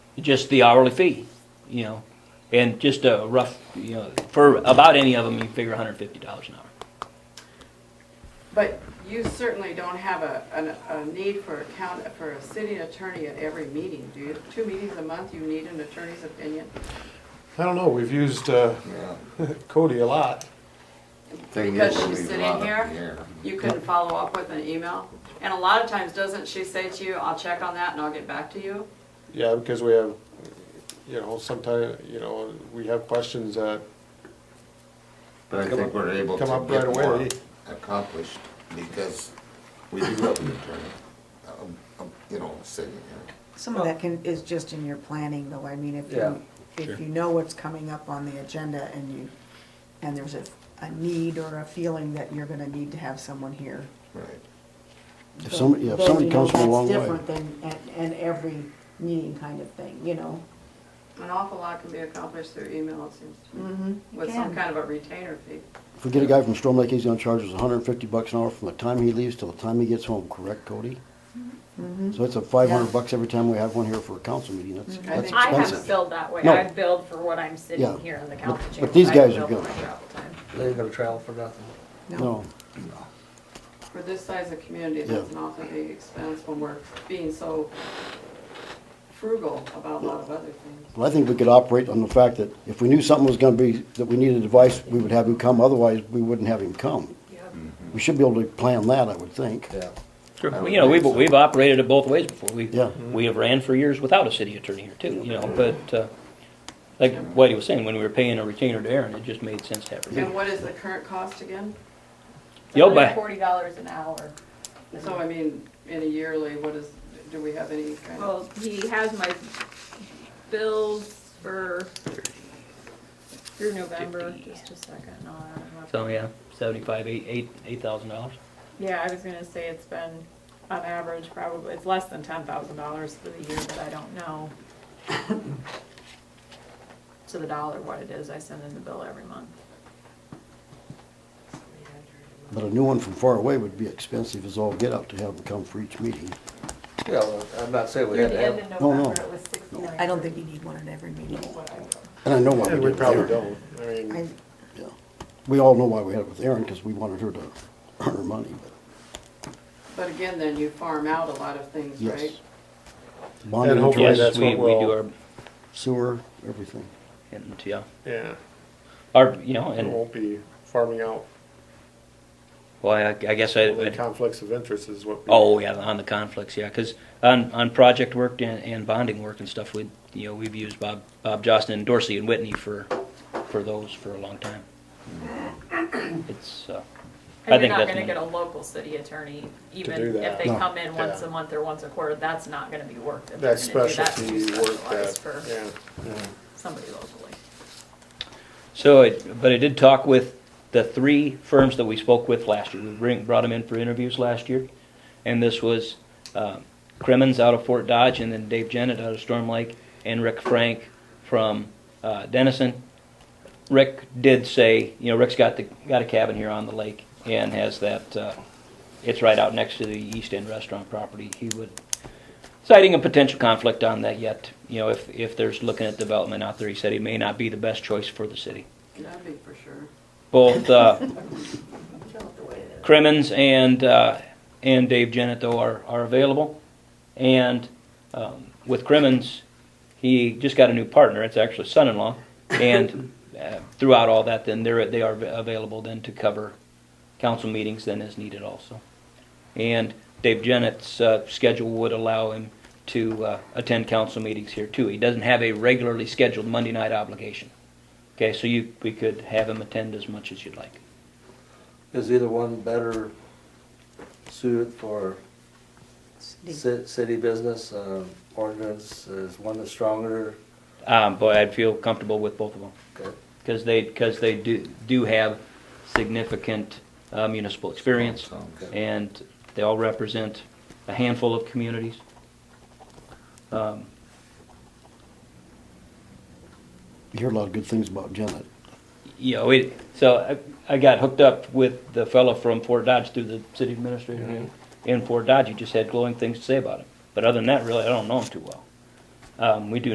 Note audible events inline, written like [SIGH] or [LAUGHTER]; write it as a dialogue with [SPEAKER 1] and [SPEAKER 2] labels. [SPEAKER 1] just the hourly fee, you know, and just a rough, you know, for about any of them, you figure hundred fifty dollars an hour.
[SPEAKER 2] But you certainly don't have a, an- a need for a count, for a city attorney at every meeting, do you? Two meetings a month, you need an attorney's opinion?
[SPEAKER 3] I don't know, we've used uh,
[SPEAKER 4] Yeah.
[SPEAKER 3] Cody a lot.
[SPEAKER 4] Thing
[SPEAKER 2] Because
[SPEAKER 4] is,
[SPEAKER 2] she's
[SPEAKER 4] we leave a
[SPEAKER 2] sitting
[SPEAKER 4] lot up
[SPEAKER 2] here?
[SPEAKER 4] in the air.
[SPEAKER 2] You couldn't follow up with an email? And a lot of times, doesn't she say to you, I'll check on that and I'll get back to you?
[SPEAKER 3] Yeah, because we have, you know, sometimes, you know, we have questions that
[SPEAKER 4] But I
[SPEAKER 3] Come
[SPEAKER 4] think
[SPEAKER 3] up-
[SPEAKER 4] we're able
[SPEAKER 3] come
[SPEAKER 4] to
[SPEAKER 3] up
[SPEAKER 4] get
[SPEAKER 3] right away.
[SPEAKER 4] more accomplished because we do have an attorney, um, um, you know, sitting here.
[SPEAKER 5] Some of that can, is just in your planning though, I mean, if you, if you know what's coming up on the agenda and you, and there's a, a need or a feeling that you're gonna need to have someone here.
[SPEAKER 4] Right.
[SPEAKER 6] If somebody, yeah, if somebody comes from a long
[SPEAKER 5] That's different
[SPEAKER 6] way.
[SPEAKER 5] than, and, and every meeting kind of thing, you know?
[SPEAKER 2] An awful lot can be accomplished through email, it seems to me,
[SPEAKER 5] Mm-hmm.
[SPEAKER 2] with some kind of a retainer fee.
[SPEAKER 6] If we get a guy from Storm Lake, he's gonna charge us hundred and fifty bucks an hour from the time he leaves till the time he gets home, correct, Cody? So it's
[SPEAKER 5] Mm-hmm. Yeah.
[SPEAKER 6] a five
[SPEAKER 5] Mm-hmm.
[SPEAKER 6] hundred bucks every time we have one here for a council meeting, that's, that's
[SPEAKER 2] think-
[SPEAKER 7] I have
[SPEAKER 6] expensive.
[SPEAKER 7] billed that way.
[SPEAKER 6] No.
[SPEAKER 7] I've billed for what I'm
[SPEAKER 6] Yeah.
[SPEAKER 7] sitting here in the
[SPEAKER 6] But-
[SPEAKER 7] council
[SPEAKER 6] but
[SPEAKER 7] chamber.
[SPEAKER 6] these
[SPEAKER 7] I don't
[SPEAKER 6] guys are
[SPEAKER 7] bill for
[SPEAKER 6] good.
[SPEAKER 7] my travel time.
[SPEAKER 8] They ain't gonna travel for nothing.
[SPEAKER 6] No,
[SPEAKER 2] For this size of community, that's an awful big expense when we're being so frugal about a lot of other things.
[SPEAKER 6] but I think we could operate on the fact that if we knew something was gonna be, that we needed advice, we would have him come, otherwise we wouldn't have him come.
[SPEAKER 2] Mm-hmm.
[SPEAKER 6] We should be able to plan that, I would think.
[SPEAKER 8] Yeah.
[SPEAKER 1] Well, You know, we've, we've operated it both ways before. We,
[SPEAKER 6] Yeah.
[SPEAKER 1] we have ran for years without a city attorney here too, you know, but, uh, like Whitey was saying, when we were paying a retainer to Aaron, it just made sense to have her.
[SPEAKER 2] And what is the current cost again?
[SPEAKER 1] Yo,
[SPEAKER 7] It's like
[SPEAKER 1] but-
[SPEAKER 7] Forty dollars an hour.
[SPEAKER 2] So I mean, in a yearly, what is, do we have any kind of?
[SPEAKER 7] Well, he has my bills for through November, just a second. No, I don't have-
[SPEAKER 1] So, yeah, seventy-five, eight, eight, eight thousand dollars.
[SPEAKER 7] Yeah, I was gonna say it's been, on average, probably, it's less than ten thousand dollars for the year, but I don't [LAUGHS] know to the dollar what it is. I send in the bill every month.
[SPEAKER 6] But a new one from far away would be expensive as all get out to have him come for each meeting.
[SPEAKER 8] Yeah, well, I'm not saying we
[SPEAKER 7] Through
[SPEAKER 8] had
[SPEAKER 7] the
[SPEAKER 8] to
[SPEAKER 7] end of
[SPEAKER 8] have,
[SPEAKER 6] No, no.
[SPEAKER 7] November, it was sixty-nine.
[SPEAKER 5] I don't think you need one at every meeting.
[SPEAKER 6] And I know why we
[SPEAKER 3] And
[SPEAKER 6] did
[SPEAKER 3] we
[SPEAKER 6] it
[SPEAKER 3] probably
[SPEAKER 6] there.
[SPEAKER 3] don't, I mean,
[SPEAKER 5] I,
[SPEAKER 6] Yeah, we all know why we had it with Erin, because we wanted her to earn her money, but
[SPEAKER 2] But again, then you farm out a lot of things,
[SPEAKER 6] Yes.
[SPEAKER 2] right?
[SPEAKER 6] bonding,
[SPEAKER 3] And hopefully-
[SPEAKER 6] interest,
[SPEAKER 1] Yes,
[SPEAKER 3] that's
[SPEAKER 1] we,
[SPEAKER 3] what
[SPEAKER 1] we do
[SPEAKER 3] we'll-
[SPEAKER 1] our,
[SPEAKER 6] sewer, everything.
[SPEAKER 1] and, yeah,
[SPEAKER 3] yeah,
[SPEAKER 1] our, you know,
[SPEAKER 3] it
[SPEAKER 1] and,
[SPEAKER 3] won't be farming out
[SPEAKER 1] well, I, I guess I,
[SPEAKER 3] the
[SPEAKER 1] I'd-
[SPEAKER 3] conflicts of interest is what. we-
[SPEAKER 1] Oh, yeah, on the conflicts, yeah, because on, on project work and, and bonding work and stuff, we, you know, we've used Bob, Bob Johnston and Dorsey and Whitney for, for those for a long
[SPEAKER 7] [CLEARS THROAT]
[SPEAKER 1] time. It's, uh, I
[SPEAKER 7] And you're
[SPEAKER 1] think
[SPEAKER 7] not
[SPEAKER 1] that's.
[SPEAKER 7] gonna get a
[SPEAKER 1] another-
[SPEAKER 7] local city attorney,
[SPEAKER 3] do
[SPEAKER 7] even
[SPEAKER 3] that.
[SPEAKER 7] if they
[SPEAKER 6] No.
[SPEAKER 7] come in once
[SPEAKER 3] Yeah.
[SPEAKER 7] a month or once a quarter, that's not gonna be work. that they're
[SPEAKER 3] That's
[SPEAKER 7] gonna do. That's
[SPEAKER 3] specialty
[SPEAKER 7] too
[SPEAKER 3] work
[SPEAKER 7] specialized
[SPEAKER 3] that,
[SPEAKER 7] for
[SPEAKER 3] yeah.
[SPEAKER 7] somebody locally.
[SPEAKER 1] So, it- but I did talk with the three firms that we spoke with last year. We bring, brought them in for interviews last year. And this was, uh, Crimmins out of Fort Dodge and then Dave Jennett out of Storm Lake and Rick Frank from, uh, Dennison. Rick did say, you know, Rick's got the, got a cabin here on the lake and has that, uh, it's right out next to the East End Restaurant property. He would, citing a potential conflict on that yet, you know, if, if there's looking at development out there, he said he may not be the best choice for the city
[SPEAKER 2] That'd be for sure.
[SPEAKER 1] both uh,
[SPEAKER 7] Tell it the way it is.
[SPEAKER 1] Crimmins and uh, and Dave Jennett though are, are available. And um, with Crimmins, he just got a new partner. It's actually son-in-law. And uh, throughout all that, then they're they are available then to cover council meetings then as needed also. And Dave Jennett's uh, schedule would allow him to uh, attend council meetings here too. He doesn't have a regularly scheduled Monday night obligation. Okay, so you we could have him attend as much as you'd like.
[SPEAKER 8] is either one better suited for ci- city business, um, ordinance, is one that's stronger?
[SPEAKER 1] Um, boy, I'd feel comfortable with both of them
[SPEAKER 8] Okay.
[SPEAKER 1] because they because they do do have significant uh, municipal experience,
[SPEAKER 4] Sounds good.
[SPEAKER 1] and they all represent a handful of communities. Um,
[SPEAKER 6] You hear a lot of good things about Janet.
[SPEAKER 1] you know, it, so I, I got hooked up with the fellow from Fort Dodge through the city administrator in Fort Dodge. He just had glowing things to say about him, but other than that, really, I don't know him too well. Um, we do